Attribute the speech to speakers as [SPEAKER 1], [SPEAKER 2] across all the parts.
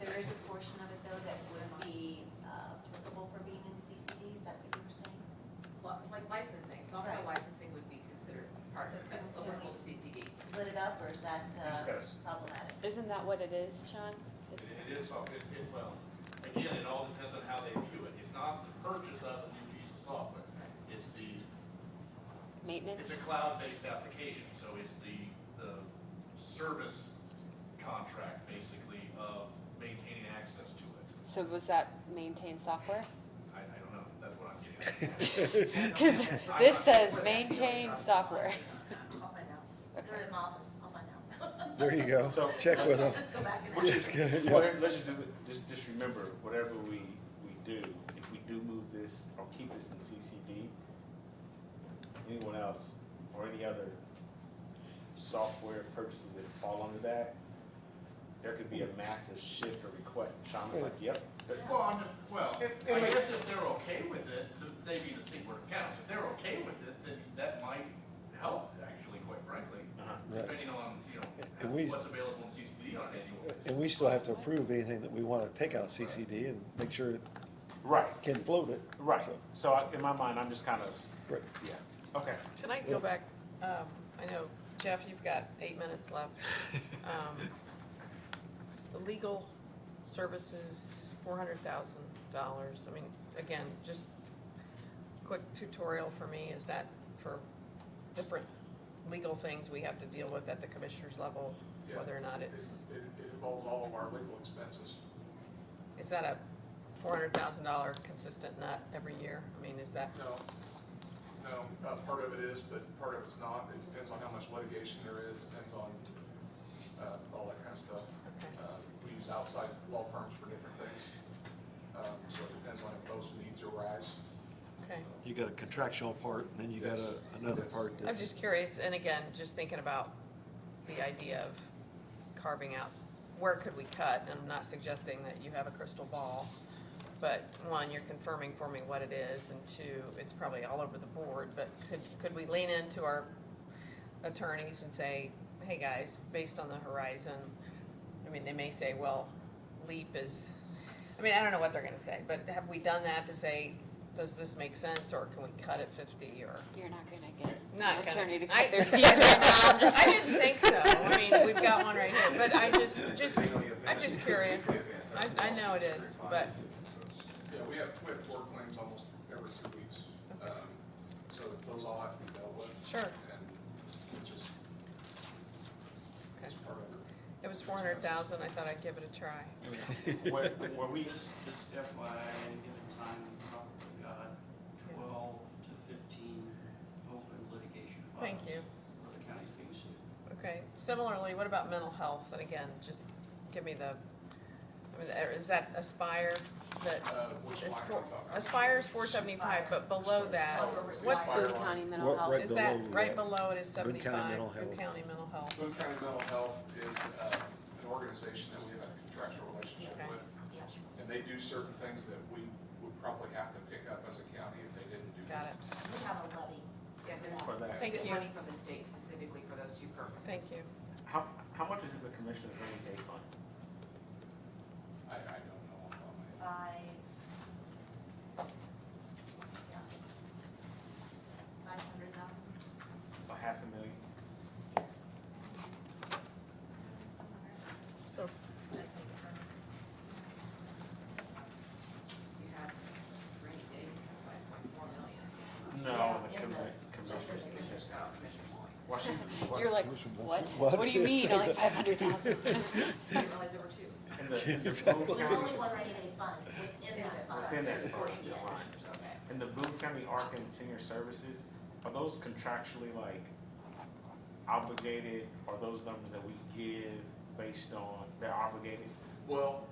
[SPEAKER 1] there is a portion of it though that would be uh, applicable for being in CCD, is that what you were saying?
[SPEAKER 2] Li- Like licensing, software
[SPEAKER 1] Right.
[SPEAKER 2] licensing would be considered part
[SPEAKER 1] So
[SPEAKER 2] of
[SPEAKER 1] can- can
[SPEAKER 2] local
[SPEAKER 1] we-
[SPEAKER 2] CCDs.
[SPEAKER 1] Split it up, or is that uh,
[SPEAKER 3] Just gotta s-
[SPEAKER 1] problematic?
[SPEAKER 4] Isn't that what it is, Sean?
[SPEAKER 5] It
[SPEAKER 4] It's-
[SPEAKER 5] it is software, it's, it, well, again, it all depends on how they view it. It's not the purchase of a new piece of software. It's the, it's
[SPEAKER 4] Maintenance?
[SPEAKER 5] a cloud-based application, so it's the, the service contract basically of maintaining access to it.
[SPEAKER 4] So was that maintain software?
[SPEAKER 5] I, I don't know, that's what I'm getting at.
[SPEAKER 4] Cause this says maintain software.
[SPEAKER 2] I'll find out.
[SPEAKER 1] They're
[SPEAKER 4] Okay.
[SPEAKER 1] in the office, I'll find out.
[SPEAKER 6] There you go.
[SPEAKER 3] So-
[SPEAKER 6] Check with them.
[SPEAKER 1] Just go back and.
[SPEAKER 6] Just kidding. Yeah.
[SPEAKER 3] Whatever- Let's just, do it- just, just remember, whatever we, we do, if we do move this or keep this in CCD, anyone else or any other software purchases that fall under that, there could be a massive shift or request. Sean's like, yep, that-
[SPEAKER 5] Well, I'm just, well,
[SPEAKER 3] It- it
[SPEAKER 5] I
[SPEAKER 3] makes-
[SPEAKER 5] guess if they're okay with it, th- they be the state board of accounts, if they're okay with it, then that might help, actually, quite frankly.
[SPEAKER 3] uh-huh.
[SPEAKER 6] Right.
[SPEAKER 5] Depending on, you
[SPEAKER 6] And we-
[SPEAKER 5] know, what's available in CCD on an annual basis.
[SPEAKER 6] And we still have to approve anything that we want to take out of CCD and make sure it
[SPEAKER 3] Right,
[SPEAKER 6] can float it.
[SPEAKER 3] right.
[SPEAKER 6] So,
[SPEAKER 3] So I- in my mind, I'm just kind of,
[SPEAKER 6] Right.
[SPEAKER 3] yeah, okay.
[SPEAKER 7] Can I go back? Um, I know, Jeff, you've got eight minutes left. Um, The legal services, four hundred thousand dollars. I mean, again, just quick tutorial for me. Is that for different legal things we have to deal with at the commissioner's level?
[SPEAKER 8] Yeah.
[SPEAKER 7] Whether or not
[SPEAKER 8] It,
[SPEAKER 7] it's,
[SPEAKER 8] it it involves all of our legal expenses.
[SPEAKER 7] is that a four hundred thousand dollar consistent nut every year? I mean, is that,
[SPEAKER 8] No, no, uh, part of it is, but part of it's not. It depends on how much litigation there is, depends on, uh, all that kind of stuff.
[SPEAKER 7] Okay.
[SPEAKER 8] Uh, We use outside law firms for different things, um, so it depends on if those needs arise.
[SPEAKER 7] okay?
[SPEAKER 6] You got a contractual part, and then you got a, another part
[SPEAKER 7] I was
[SPEAKER 6] that's,
[SPEAKER 7] just curious, and again, just thinking about the idea of carving out, where could we cut? And I'm not suggesting that you have a crystal ball, but one, you're confirming for me what it is, and two, it's probably all over the board, but could, could we lean into our attorneys and say, hey, guys, based on the horizon, I mean, they may say, well, LEAP is, I mean, I don't know what they're gonna say, but have we done that to say, does this make sense, or can we cut it fifty, or?
[SPEAKER 4] You're not gonna get
[SPEAKER 7] Not
[SPEAKER 4] an
[SPEAKER 7] gonna-
[SPEAKER 4] attorney to
[SPEAKER 7] I-
[SPEAKER 4] cut their fees right now, I'm just
[SPEAKER 7] I didn't think so. I mean, we've got one right here, but I just, just, I'm just curious. I, I know it is, but,
[SPEAKER 8] Yeah, we have, we have tort claims almost every two weeks, um, so those all have to be dealt with.
[SPEAKER 7] Sure.
[SPEAKER 8] And it's just, it's part of it.
[SPEAKER 7] it was four hundred thousand, I thought I'd give it a try.
[SPEAKER 3] Where, where we,
[SPEAKER 9] Just, just FYI, at any given time, we probably got twelve to fifteen open litigation files.
[SPEAKER 7] Thank you.
[SPEAKER 9] For the county's being sued.
[SPEAKER 7] Okay, similarly, what about mental health? And again, just give me the, I mean, is that Aspire that
[SPEAKER 8] Uh, which
[SPEAKER 7] is four,
[SPEAKER 8] line are we talking about? Oh,
[SPEAKER 7] Aspire's four seventy-five, but below that, what's
[SPEAKER 6] Aspire.
[SPEAKER 7] the,
[SPEAKER 4] Boone County Mental
[SPEAKER 6] What-
[SPEAKER 4] Health.
[SPEAKER 6] right
[SPEAKER 7] is that,
[SPEAKER 6] below
[SPEAKER 7] right
[SPEAKER 6] that.
[SPEAKER 7] below it is
[SPEAKER 6] Boone County
[SPEAKER 7] seventy-five,
[SPEAKER 6] Mental
[SPEAKER 7] Boone
[SPEAKER 6] Health.
[SPEAKER 7] County Mental Health?
[SPEAKER 8] Boone County Mental Health is uh, an organization that we have a contractual relationship
[SPEAKER 7] Okay.
[SPEAKER 8] with, and they do certain things that we would probably have to pick up as a county if they didn't do.
[SPEAKER 7] Got it.
[SPEAKER 1] We have a levy.
[SPEAKER 2] Yeah, they're
[SPEAKER 3] for that,
[SPEAKER 2] get
[SPEAKER 7] Thank you.
[SPEAKER 2] money from the state specifically for those two purposes.
[SPEAKER 7] Thank you.
[SPEAKER 3] how, how much is it the commissioner going to take on?
[SPEAKER 8] I, I don't know. off the top of my head.
[SPEAKER 1] Five. Yeah. Five hundred thousand.
[SPEAKER 3] A half a million?
[SPEAKER 7] So
[SPEAKER 2] You have rainy day, like point four million.
[SPEAKER 3] No,
[SPEAKER 1] Yeah,
[SPEAKER 3] the
[SPEAKER 1] in the-
[SPEAKER 3] commi-
[SPEAKER 2] Just
[SPEAKER 3] commissioner.
[SPEAKER 2] there's commissioners, oh, commissioner Moore.
[SPEAKER 3] Washington,
[SPEAKER 4] You're like, what? What do you mean, only five hundred thousand?
[SPEAKER 2] I didn't realize there were two.
[SPEAKER 3] in the, in the Boone
[SPEAKER 6] Exactly.
[SPEAKER 1] There's only
[SPEAKER 3] County,
[SPEAKER 1] one rainy day fund within that fund.
[SPEAKER 3] Within that
[SPEAKER 2] There's a
[SPEAKER 3] fund,
[SPEAKER 2] portion
[SPEAKER 3] yeah.
[SPEAKER 2] that's commissioners, okay.
[SPEAKER 3] in the Boone County Arc and Senior Services, are those contractually like obligated? Are those numbers that we give based on, they're obligated?
[SPEAKER 8] Well,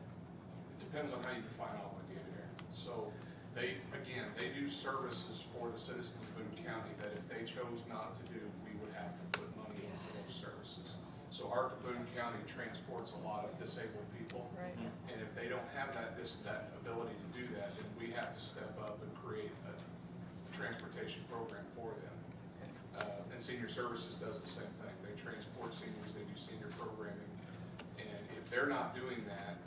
[SPEAKER 8] it depends on how you define obligated. So they, again, they do services for the citizens of Boone County that if they chose not to do, we would have to put money into those services. So our Boone County transports a lot of disabled people.
[SPEAKER 7] Right.
[SPEAKER 8] And if they don't have that, this, that ability to do that, then we have to step up and create a transportation program for them. Uh, and senior services does the same thing. They transport seniors, they do senior programming. And if they're not doing that,